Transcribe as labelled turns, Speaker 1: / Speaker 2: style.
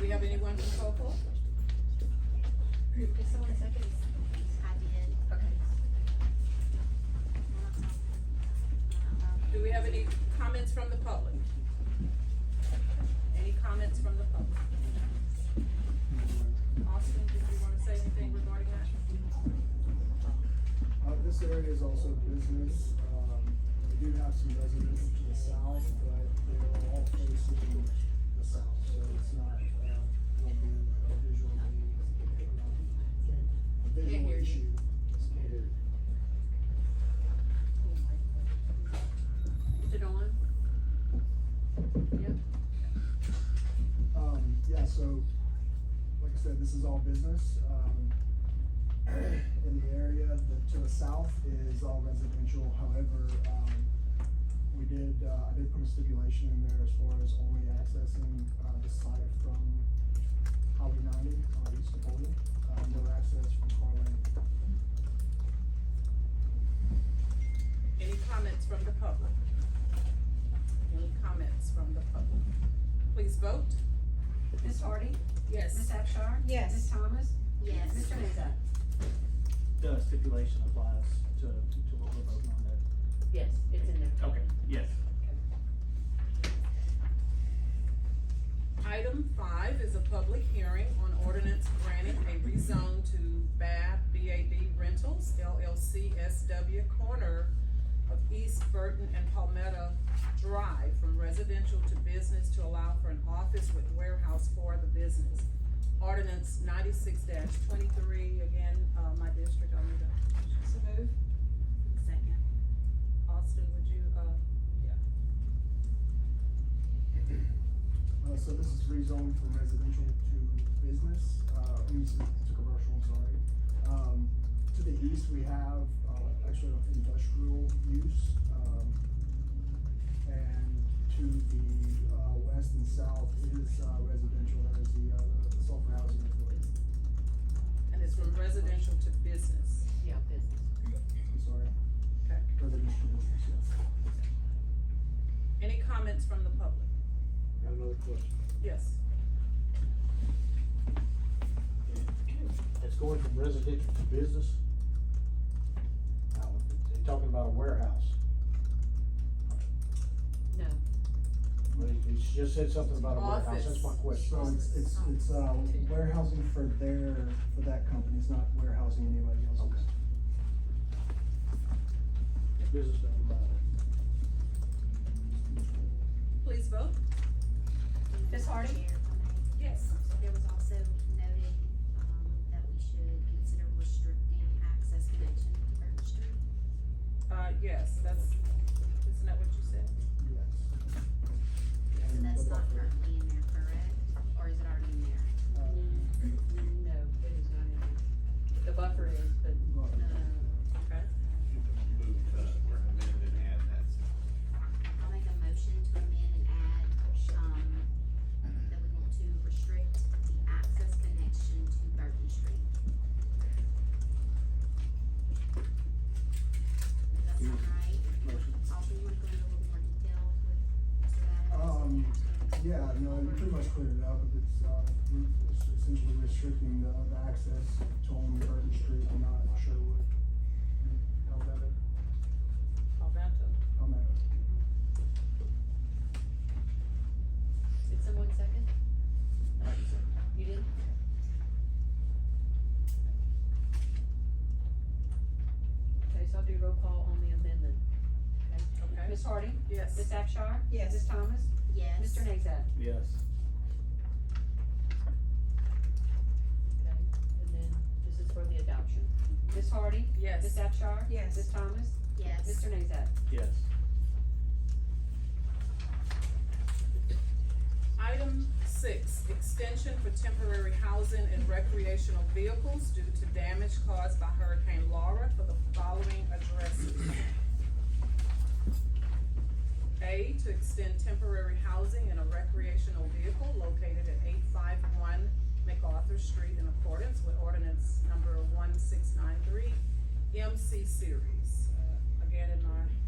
Speaker 1: Ms. Cole?
Speaker 2: Did someone second?
Speaker 3: I did.
Speaker 2: Okay.
Speaker 1: Do we have any comments from the public? Any comments from the public? Austin, did you wanna say anything regarding that?
Speaker 4: Uh, this area is also business, um, we do have some residents to the south, but they're all facing the south, so it's not, uh, will be a visually, um, a
Speaker 1: Can't
Speaker 4: visual
Speaker 1: hear you.
Speaker 4: issue. Can't hear you.
Speaker 1: Is it on? Yep.
Speaker 4: Um, yeah, so, like I said, this is all business, um, in the area, the, to the south is all residential, however, um, we did, uh, I did put a stipulation in there as far as only accessing, uh, the site from Highway ninety, uh, east of Bolton, uh, no access from Car Lane.
Speaker 1: Any comments from the public? Any comments from the public? Please vote.
Speaker 2: Ms. Hardy? Ms.
Speaker 1: Yes.
Speaker 2: Abchar?
Speaker 5: Yes.
Speaker 2: Ms. Thomas?
Speaker 3: Yes.
Speaker 2: Mr. Nazat?
Speaker 6: The stipulation applies to, to what we're voting on there.
Speaker 2: Yes, it's in there.
Speaker 6: Okay, yes.
Speaker 1: Item five is a public hearing on ordinance granting a rezone to BAB, BAB Rentals LLC SW corner of East Burton and Palmetto Drive from residential to business to allow for an office with warehouse for the business. Ordinance ninety-six twenty-three, again, uh, my district, I'll need a. So move.
Speaker 3: Second.
Speaker 1: Austin, would you, uh,
Speaker 4: Uh, so this is rezoned from residential to business, uh, I mean, to to commercial, I'm sorry. Um, to the east, we have, uh, actually an industrial use, um, and to the, uh, west and south is, uh, residential, that is the, uh, the sulfur housing authority,
Speaker 1: and it's from residential to business.
Speaker 2: Yeah, business.
Speaker 4: I'm sorry,
Speaker 1: Okay.
Speaker 4: residential to business, yes.
Speaker 1: Any comments from the public?
Speaker 7: Got another question.
Speaker 1: Yes.
Speaker 7: It's going from residential to business. Now, they're talking about a warehouse.
Speaker 2: No.
Speaker 7: But it- it just said something about a warehouse, that's my
Speaker 1: Office.
Speaker 4: So
Speaker 7: question.
Speaker 4: it's, it's, it's, uh, warehousing for their, for that company, it's not warehousing anybody else's.
Speaker 7: Okay. Business doesn't matter.
Speaker 1: Please vote.
Speaker 2: Ms. Hardy?
Speaker 3: Chair, if I may.
Speaker 1: Yes.
Speaker 3: So there was also noted, um, that we should consider restricting access connection to Burton Street.
Speaker 1: Uh, yes, that's, isn't that what you said?
Speaker 4: Yes.
Speaker 3: So
Speaker 4: And
Speaker 3: that's
Speaker 4: the
Speaker 3: not
Speaker 4: buffer.
Speaker 3: currently in there, correct? Or is it already in there?
Speaker 4: Uh,
Speaker 2: No, it is not in there. The buffer is, but
Speaker 4: buffer.
Speaker 1: Okay.
Speaker 8: Move, uh, we're amending and add that
Speaker 3: I'll make a motion to amend and add, um, that we want to restrict the access connection to Burton Street. If That's all right.
Speaker 7: Motion.
Speaker 3: Also, you wanna go into a little more detail with, to that?
Speaker 4: Um, Yeah, no, you pretty much cleared it up, it's, uh, we're essentially restricting the, the access to only Burton Street, I'm not sure what, how that,
Speaker 1: Alberto?
Speaker 4: how that.
Speaker 2: did someone second? You did? Okay, so I'll do roll call on the amendment.
Speaker 1: Okay.
Speaker 2: Ms. Hardy? Ms.
Speaker 1: Yes.
Speaker 2: Abchar?
Speaker 5: Yes.
Speaker 2: Ms. Thomas?
Speaker 3: Yes.
Speaker 2: Mr. Nazat?
Speaker 6: Yes.
Speaker 2: Okay, and then this is for the adoption. Ms. Hardy? Ms.
Speaker 1: Yes.
Speaker 2: Abchar?
Speaker 5: Yes.
Speaker 2: Ms. Thomas?
Speaker 3: Yes.
Speaker 2: Mr. Nazat?
Speaker 6: Yes.
Speaker 1: Item six, extension for temporary housing and recreational vehicles due to damage caused by Hurricane Laura for the following addresses. A, to extend temporary housing and a recreational vehicle located at eight five one MacArthur Street in accordance with ordinance number one six nine three MC series. Uh, Again, in my Um,